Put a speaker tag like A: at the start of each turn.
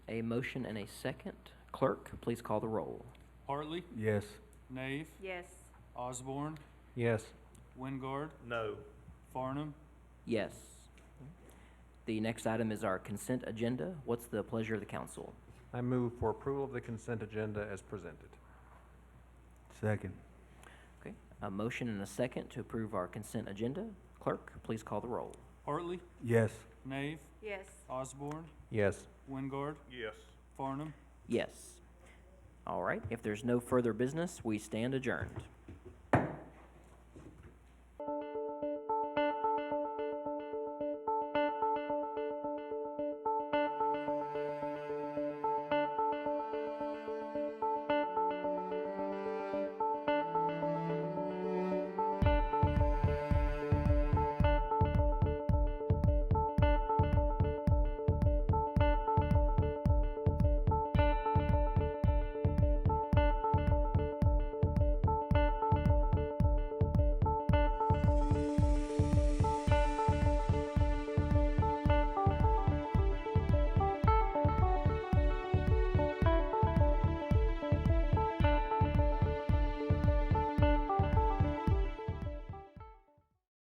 A: a motion and a second. Clerk, please call the roll.
B: Hartley,
C: Yes.
B: Nave,
D: Yes.
B: Osborne,
C: Yes.
B: Wingard,
E: No.
B: Farnum,
A: Yes. The next item is our consent agenda. What's the pleasure of the council?
F: I move for approval of the consent agenda as presented.
C: Second.
A: Okay, a motion and a second to approve our consent agenda. Clerk, please call the roll.
B: Hartley,
C: Yes.
B: Nave,
D: Yes.
B: Osborne,
F: Yes.
B: Wingard,
E: Yes.
B: Farnum,
A: Yes. All right, if there's no further business, we stand adjourned.